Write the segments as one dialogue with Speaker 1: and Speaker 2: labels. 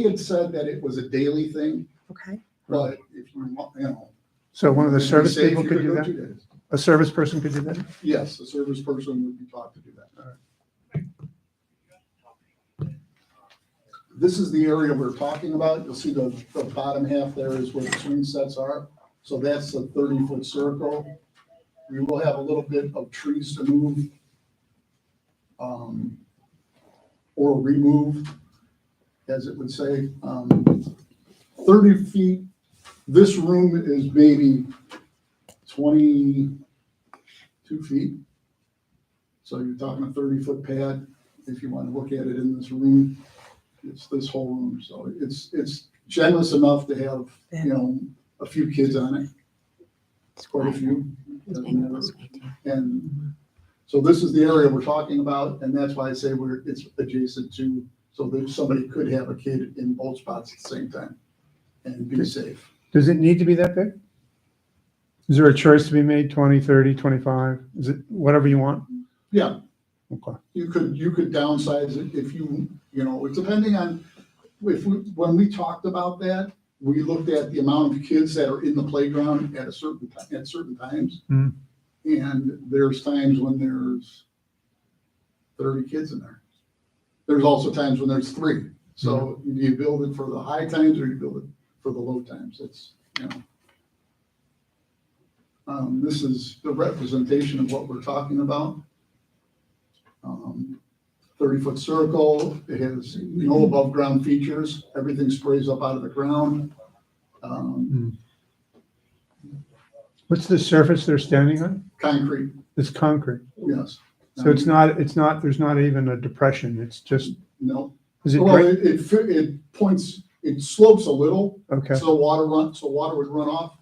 Speaker 1: He had said that it was a daily thing,
Speaker 2: Okay.
Speaker 1: but if you want, you know.
Speaker 3: So one of the
Speaker 1: if you
Speaker 3: service
Speaker 1: say if
Speaker 3: people
Speaker 1: you
Speaker 3: could do
Speaker 1: go
Speaker 3: that?
Speaker 1: two days.
Speaker 3: A service person could do that?
Speaker 1: Yes, the service person would be taught to do that. This is the area we're talking about. You'll see the, the bottom half there is where the swing sets are. So that's a thirty-foot circle. We will have a little bit of trees to move. um, Or remove, as it would say. Um, Thirty feet, this room is maybe twenty, two feet. So you're talking a thirty-foot pad, if you want to look at it in this room, it's this whole room, so it's, it's generous enough to have, you know, a few kids on it. It's quite a few. doesn't matter. And so this is the area we're talking about, and that's why I say we're, it's adjacent to, so that somebody could have a kid in both spots at the same time and be safe.
Speaker 3: Does it need to be that big? Is there a choice to be made, 20, 30, 25? Is it whatever you want?
Speaker 1: Yeah,
Speaker 3: Okay.
Speaker 1: you could, you could downsize it if you, you know, it's depending on, if, we when we talked about that, we looked at the amount of kids that are in the playground at a certain, ti- at certain times.
Speaker 3: Hmm.
Speaker 1: And there's times when there's thirty kids in there. There's also times when there's three. So do you build it for the high times or you build it for the low times? It's, you know. Um, this is the representation of what we're talking about thirty-foot circle. It has no above-ground features. Everything sprays up out of the ground. Um,
Speaker 3: What's the surface they're standing on?
Speaker 1: Concrete,
Speaker 3: It's concrete.
Speaker 1: yes.
Speaker 3: So it's not, it's not, there's not even a depression. It's just,
Speaker 1: No,
Speaker 3: is it,
Speaker 1: well,
Speaker 3: dra-
Speaker 1: it, it, fi- it points, it slopes a little,
Speaker 3: okay,
Speaker 1: so water run, so water would run off,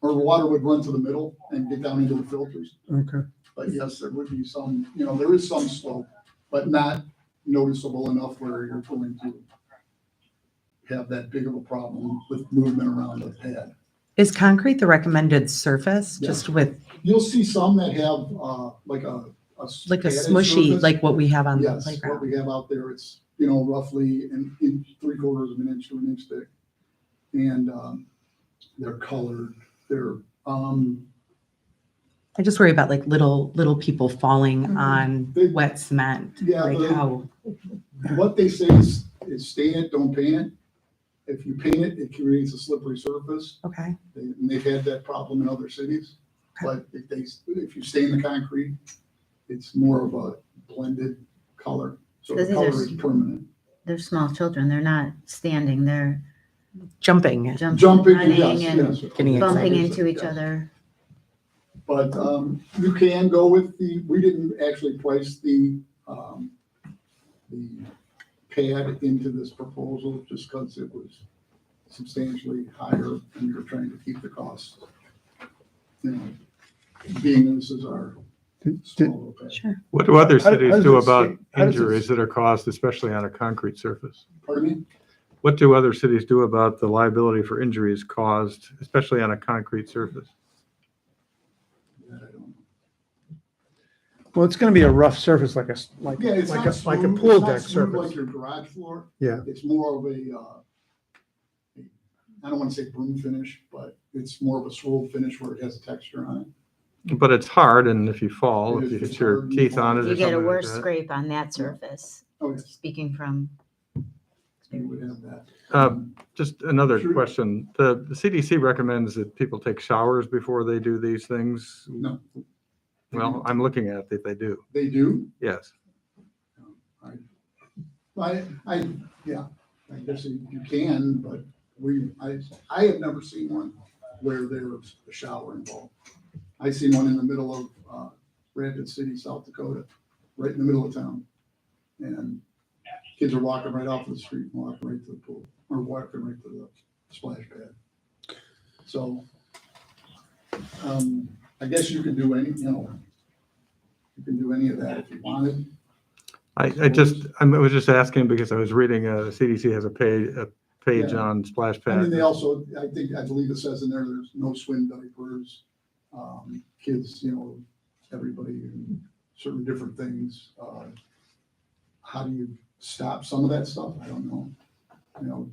Speaker 1: or water would run to the middle and get down into the filters.
Speaker 3: okay.
Speaker 1: But yes, there would be some, you know, there is some slope, but not noticeable enough where you're going to have that big of a problem with movement around the pad.
Speaker 2: Is concrete the recommended surface,
Speaker 1: Yeah.
Speaker 2: just with,
Speaker 1: You'll see some that have, uh, like a.
Speaker 2: like a
Speaker 1: padded
Speaker 2: smushy,
Speaker 1: surface.
Speaker 2: like what we have on the
Speaker 1: Yes, what
Speaker 2: playground?
Speaker 1: we have out there, it's, you know, roughly an inch, three quarters of an inch to an inch thick. And, um, they're colored, they're, um,
Speaker 2: I just worry about like little, little people falling
Speaker 3: Mhm.
Speaker 2: on
Speaker 1: They-
Speaker 2: wet cement,
Speaker 1: Yeah,
Speaker 2: like
Speaker 1: they-
Speaker 2: how,
Speaker 1: what they say is, is stain it, don't paint it. If you paint it, it creates a slippery surface.
Speaker 2: okay,
Speaker 1: They- And they've had that problem in other cities, but if they, if you stain the concrete, it's more of a blended color. So the
Speaker 4: Because these
Speaker 1: color
Speaker 4: are
Speaker 1: is permanent.
Speaker 4: They're small children. They're not standing. They're
Speaker 2: jumping.
Speaker 4: jumping,
Speaker 1: Jumping, yes,
Speaker 4: running, and
Speaker 1: yes.
Speaker 2: Getting yes.
Speaker 4: bumping
Speaker 1: Yes,
Speaker 4: into each
Speaker 1: yes.
Speaker 4: other.
Speaker 1: But um, you can go with the, we didn't actually price the, um, the pad into this proposal just because it was substantially higher and we were trying to keep the cost. you know, Being this is our
Speaker 3: Did-
Speaker 1: small
Speaker 3: did-
Speaker 1: little pad.
Speaker 2: Sure.
Speaker 5: What do other
Speaker 3: How- how
Speaker 5: cities
Speaker 3: does
Speaker 5: do
Speaker 3: it
Speaker 5: about
Speaker 3: sta- how does it
Speaker 5: injuries that are caused, especially on a concrete surface?
Speaker 1: Pardon me?
Speaker 5: What do other cities do about the liability for injuries caused, especially on a concrete surface?
Speaker 1: Yeah, I don't-
Speaker 3: Well, it's going to be a rough surface, like a, s- like,
Speaker 1: Yeah, it's
Speaker 3: like
Speaker 1: not
Speaker 3: a, like a
Speaker 1: smooth-
Speaker 3: pool
Speaker 1: it's not
Speaker 3: deck
Speaker 1: smooth Like
Speaker 3: surface.
Speaker 1: your garage floor.
Speaker 3: Yeah.
Speaker 1: It's more of a, uh, I don't want to say broom finish, but it's more of a swirl finish where it has a texture on it.
Speaker 5: But it's hard, and if you fall,
Speaker 1: It
Speaker 5: if
Speaker 1: is,
Speaker 5: you
Speaker 1: it's
Speaker 5: hit your
Speaker 1: hard.
Speaker 5: teeth on it
Speaker 4: You
Speaker 5: or
Speaker 4: get a
Speaker 5: something like
Speaker 4: worse
Speaker 5: that.
Speaker 4: scrape on that surface,
Speaker 1: Oh, yes.
Speaker 4: speaking from
Speaker 1: You would have that.
Speaker 5: Uh, Just another
Speaker 1: Sure.
Speaker 5: question. The the CDC recommends that people take showers before they do these things.
Speaker 1: No.
Speaker 5: Well, I'm looking at it, they do,
Speaker 1: They do?
Speaker 5: yes.
Speaker 1: I, I, yeah, I guess you you can, but we, I, I have never seen one where there was a shower involved. I seen one in the middle of, uh, Rapid City, South Dakota, right in the middle of town. And kids are walking right off the street, and walking right to the pool, or walking right to the splash pad. So, um, I guess you can do any, you know, you can do any of that if you wanted.
Speaker 5: I, I just, I'm- I was just asking because I was reading, uh, the CDC has a page, a page
Speaker 1: Yeah.
Speaker 5: on splash
Speaker 1: And
Speaker 5: pad.
Speaker 1: then they also, I think, I believe it says in there, there's no swim diapers, um, kids, you know, everybody, and certain different things. uh, How do you stop some of that stuff? I don't know. You know,